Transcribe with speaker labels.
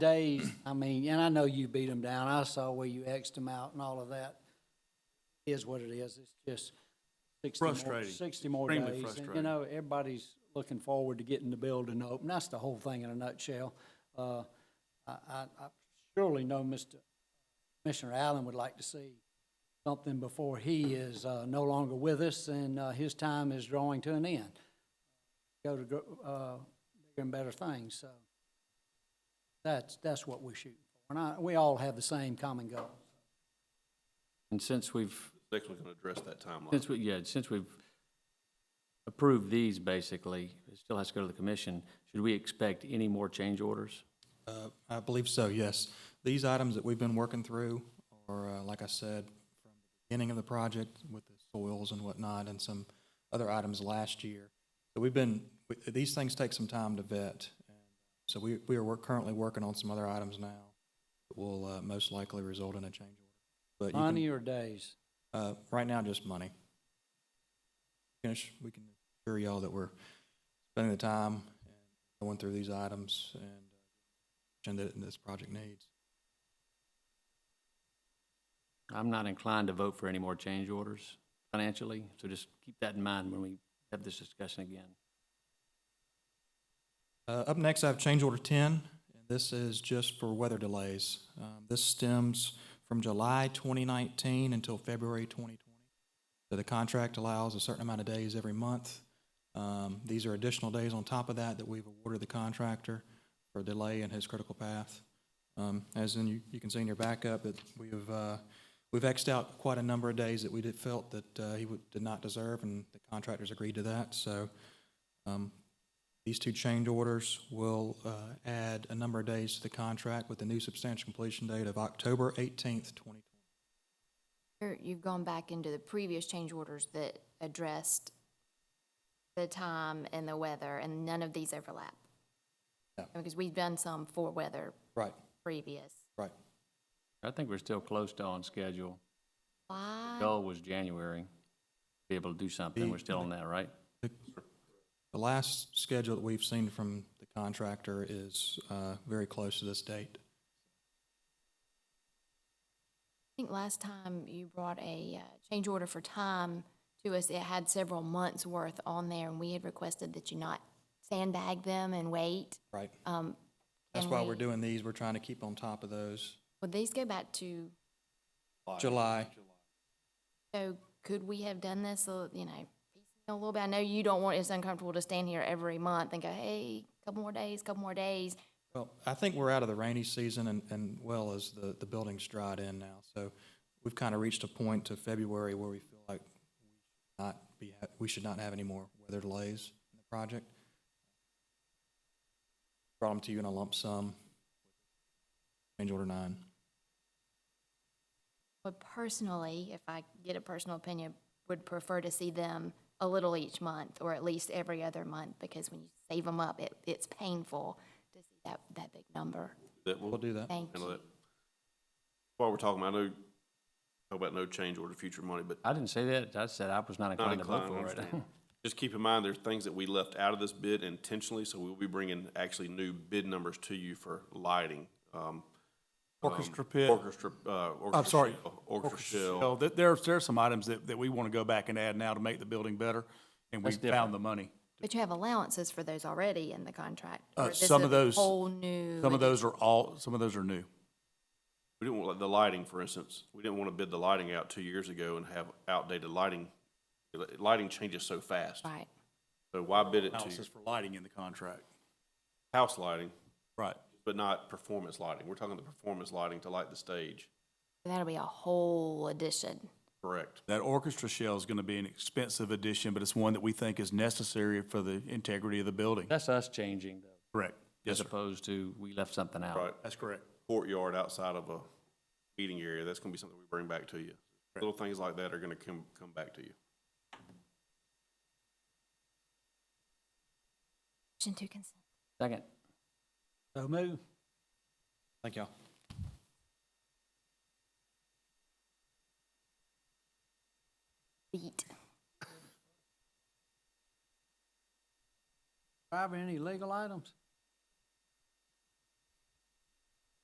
Speaker 1: days, I mean, and I know you beat them down. I saw where you Xed them out and all of that. Is what it is. It's just sixty more,
Speaker 2: Frustrating.
Speaker 1: sixty more days.
Speaker 2: Extremely
Speaker 1: And, You
Speaker 2: frustrating.
Speaker 1: know, everybody's looking forward to getting the building open. That's the whole thing in a nutshell. Uh, I, I, I surely know Mr. Commissioner Allen would like to see something before he is, uh, no longer with us and, uh, his time is drawing to an end. Go to, gr- uh, bigger and better things, so. That's, that's what we're shooting for. And I, we all have the same common goal.
Speaker 3: And since we've,
Speaker 2: Next one can address that timeline.
Speaker 3: since we, yeah, since we've approved these basically, it still has to go to the commission. Should we expect any more change orders?
Speaker 4: Uh, I believe so, yes. These items that we've been working through are, uh, like I said, from the beginning of the project with the soils and whatnot and some other items last year. So we've been, we- these things take some time to vet. So we, we are work- currently working on some other items now that will uh, most likely result in a change order. But you
Speaker 1: Money
Speaker 4: can-
Speaker 1: or days?
Speaker 4: uh, Right now, just money. Finish, we can assure y'all that we're spending the time and going through these items and uh, and that this project needs.
Speaker 3: I'm not inclined to vote for any more change orders financially, so just keep that in mind when we have this discussion again.
Speaker 4: Uh, Up next, I have change order 10, and this is just for weather delays. Um, This stems from July 2019 until February 2020. So the contract allows a certain amount of days every month. Um, These are additional days on top of that that we've awarded the contractor for delay in his critical path. Um, As in, you- you can see in your backup, that we have, uh, we've Xed out quite a number of days that we did felt that uh, he would- did not deserve, and the contractors agreed to that. So um, these two change orders will uh, add a number of days to the contract with the new substantial completion date of October 18th, 2020.
Speaker 5: You're- You've gone back into the previous change orders that addressed the time and the weather, and none of these overlap.
Speaker 4: Yeah.
Speaker 5: Because we've done some for weather
Speaker 4: Right,
Speaker 5: previous.
Speaker 4: right.
Speaker 3: I think we're still close to on schedule.
Speaker 5: Why?
Speaker 3: Goal was January, be able to do something. We're still on that, right?
Speaker 4: The last schedule that we've seen from the contractor is uh, very close to this date.
Speaker 5: I think last time you brought a uh, change order for time to us, it had several months' worth on there, and we had requested that you not sandbag them and wait.
Speaker 4: Right.
Speaker 5: Um,
Speaker 4: That's
Speaker 5: can
Speaker 4: why
Speaker 5: we-
Speaker 4: we're doing these, we're trying to keep on top of those.
Speaker 5: Would these go back to,
Speaker 4: July,
Speaker 5: so could we have done this, a- you know, a little bit? I know you don't want, it's uncomfortable to stand here every month and go, hey, couple more days, couple more days.
Speaker 4: well, I think we're out of the rainy season and, and well as the, the building's dried in now. So we've kind of reached a point to February where we feel like we should not be, ha- we should not have any more weather delays in the project. Brought them to you in a lump sum. Change order nine.
Speaker 5: But personally, if I get a personal opinion, would prefer to see them a little each month or at least every other month because when you save them up, it, it's painful to see that, that big number.
Speaker 2: That will
Speaker 4: We'll do that.
Speaker 5: Thank
Speaker 2: handle
Speaker 5: you.
Speaker 2: that. While we're talking, I know, talk about no change order future money, but
Speaker 3: I didn't say that. I said I was not
Speaker 2: not
Speaker 3: inclined to vote
Speaker 2: inclined, I
Speaker 3: for it.
Speaker 2: understand. Just keep in mind, there's things that we left out of this bid intentionally, so we'll be bringing actually new bid numbers to you for lighting. um,
Speaker 6: Orchestra
Speaker 2: um,
Speaker 6: pit.
Speaker 2: Orchestra, uh, orchestra.
Speaker 6: I'm sorry.
Speaker 2: shell, Orchestra shell.
Speaker 6: shell. There, there are- there are some items that, that we want to go back and add now to make the building better, and we
Speaker 3: That's different.
Speaker 6: found the money.
Speaker 5: But you have allowances for those already in the contract. or
Speaker 6: Uh,
Speaker 5: this
Speaker 6: some
Speaker 5: is
Speaker 6: of
Speaker 5: a
Speaker 6: those-
Speaker 5: Whole new.
Speaker 6: Some of those are all, some of those are new.
Speaker 2: We didn't want, like, the lighting, for instance, we didn't want to bid the lighting out two years ago and have outdated lighting. Lighting changes so fast.
Speaker 5: Right.
Speaker 2: So why bid it
Speaker 6: Houses
Speaker 2: to
Speaker 6: for lighting in the contract.
Speaker 2: house lighting,
Speaker 6: Right.
Speaker 2: but not performance lighting? We're talking the performance lighting to light the stage,
Speaker 5: That'll be a whole addition.
Speaker 2: correct?
Speaker 6: That orchestra shell is going to be an expensive addition, but it's one that we think is necessary for the integrity of the building.
Speaker 3: That's us changing though,
Speaker 6: Correct. Yes,
Speaker 3: as
Speaker 6: sir.
Speaker 3: opposed to we left something out.
Speaker 2: Right,
Speaker 6: That's correct.
Speaker 2: courtyard outside of a meeting area, that's gonna be something we bring back to you. Little things like that are gonna come, come back to you.
Speaker 5: Motion to consent.
Speaker 3: Second.
Speaker 1: So move.
Speaker 4: Thank y'all.
Speaker 5: Beat.
Speaker 1: Driver, any legal items?